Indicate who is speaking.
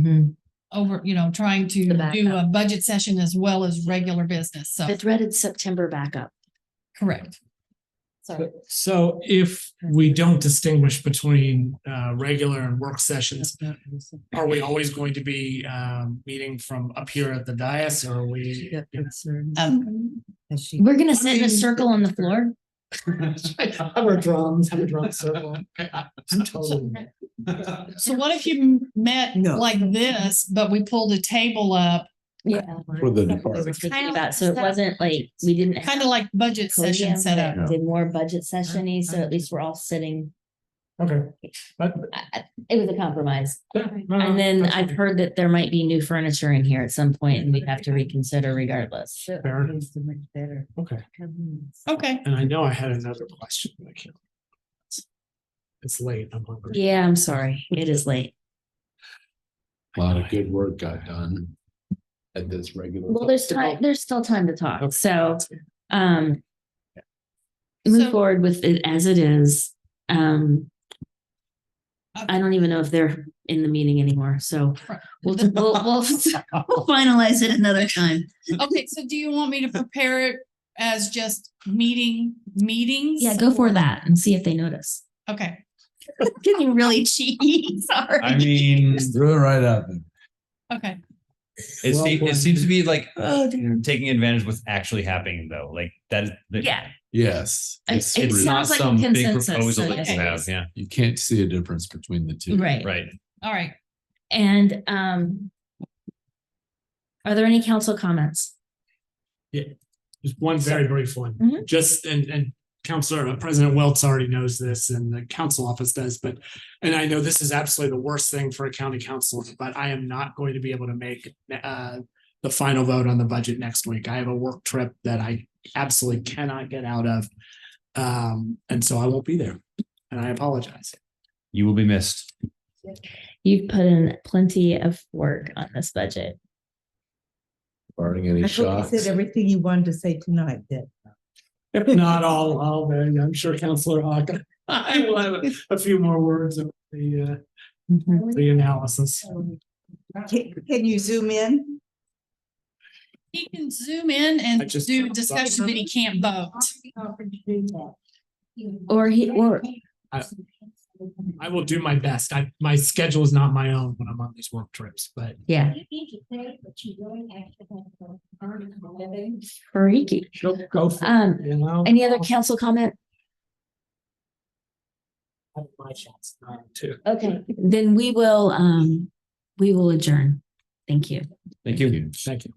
Speaker 1: Mhm.
Speaker 2: over, you know, trying to
Speaker 1: The backup.
Speaker 2: do a budget session as well as regular business. So,
Speaker 1: The dreaded September backup.
Speaker 2: correct.
Speaker 1: Sorry.
Speaker 3: So if we don't distinguish between uh regular and work sessions, are we always going to be um meeting from up here at the dais or are we?
Speaker 2: Um,
Speaker 1: Uh, We're gonna sit in a circle on the floor.
Speaker 3: Have our drums, have a drum circle. I- I'm totally.
Speaker 2: so what if you met
Speaker 4: No.
Speaker 2: like this, but we pulled a table up,
Speaker 1: Yeah.
Speaker 5: For the
Speaker 1: Uh, We're
Speaker 5: department.
Speaker 1: thinking about, so it wasn't like, we didn't. have
Speaker 2: kind of like budget session
Speaker 1: podium,
Speaker 2: set up?
Speaker 1: but Did more budget sessiony, so at least we're all sitting.
Speaker 3: Okay. But
Speaker 1: I- I- It was a compromise.
Speaker 3: yeah, no,
Speaker 1: And then
Speaker 3: that's
Speaker 1: I've
Speaker 3: okay.
Speaker 1: heard that there might be new furniture in here at some point and we'd have to reconsider regardless.
Speaker 3: Fair. Okay,
Speaker 2: Okay,
Speaker 3: and I know I had another question. but I can't. It's late, I'm hungry.
Speaker 1: Yeah, I'm sorry. It is late.
Speaker 5: A lot of good work got done at this regular.
Speaker 1: Well, there's time, there's still time to talk, so,
Speaker 3: Okay.
Speaker 1: um. Move
Speaker 2: So-
Speaker 1: forward with it as it is, um. I don't even know if they're in the meeting anymore, so we'll, we'll, we'll we'll finalize it another time.
Speaker 2: okay. So do you want me to prepare it as just meeting, meetings?
Speaker 1: Yeah, go for that and see if they notice.
Speaker 2: Okay.
Speaker 1: Getting really cheeky, sorry.
Speaker 6: I mean,
Speaker 5: Threw it right up.
Speaker 2: Okay,
Speaker 6: it,
Speaker 3: Well,
Speaker 6: se-
Speaker 3: well.
Speaker 6: it seems to be like uh, taking advantage of what's actually happening, though. Like that is. that-
Speaker 1: Yeah.
Speaker 5: Yes.
Speaker 1: It-
Speaker 5: it's
Speaker 1: it
Speaker 5: true.
Speaker 6: Not
Speaker 1: sounds- like a
Speaker 6: some big
Speaker 1: consensus, so
Speaker 6: proposal that you have.
Speaker 2: yes.
Speaker 6: Yeah.
Speaker 5: You can't see a difference between the two.
Speaker 1: Right,
Speaker 6: Right.
Speaker 2: all right.
Speaker 1: and, um. Are there any council comments?
Speaker 3: Just one very brief one,
Speaker 1: Mhm.
Speaker 3: just, and, and Counselor, uh, President Welts already knows this and the council office does, but, and I know this is absolutely the worst thing for a county council, but I am not going to be able to make, uh, the final vote on the budget next week. I have a work trip that I absolutely cannot get out of. Um, and so I won't be there and I apologize.
Speaker 6: You will be missed.
Speaker 1: You've put in plenty of work on this budget.
Speaker 5: Barring any
Speaker 4: I thought
Speaker 5: shocks.
Speaker 4: you said everything you wanted to say tonight, then.
Speaker 3: If not all, all, then I'm sure Counselor Hawk, I will have a- a few more words of the, uh, the analysis.
Speaker 4: Can, can you zoom in?
Speaker 2: He can zoom in
Speaker 3: I
Speaker 2: and
Speaker 3: just-
Speaker 2: do discussion, but he can't vote.
Speaker 1: Or he, or
Speaker 3: I will do my best. I, my schedule is not my own when I'm on these work trips, but
Speaker 1: Yeah. Freaky.
Speaker 3: go, go for it,
Speaker 1: Um,
Speaker 3: you know.
Speaker 1: any other council comment?
Speaker 3: I have My shots, uh, too.
Speaker 1: Okay, then we will, um, we will adjourn. Thank you.
Speaker 6: Thank you.
Speaker 3: Thank you.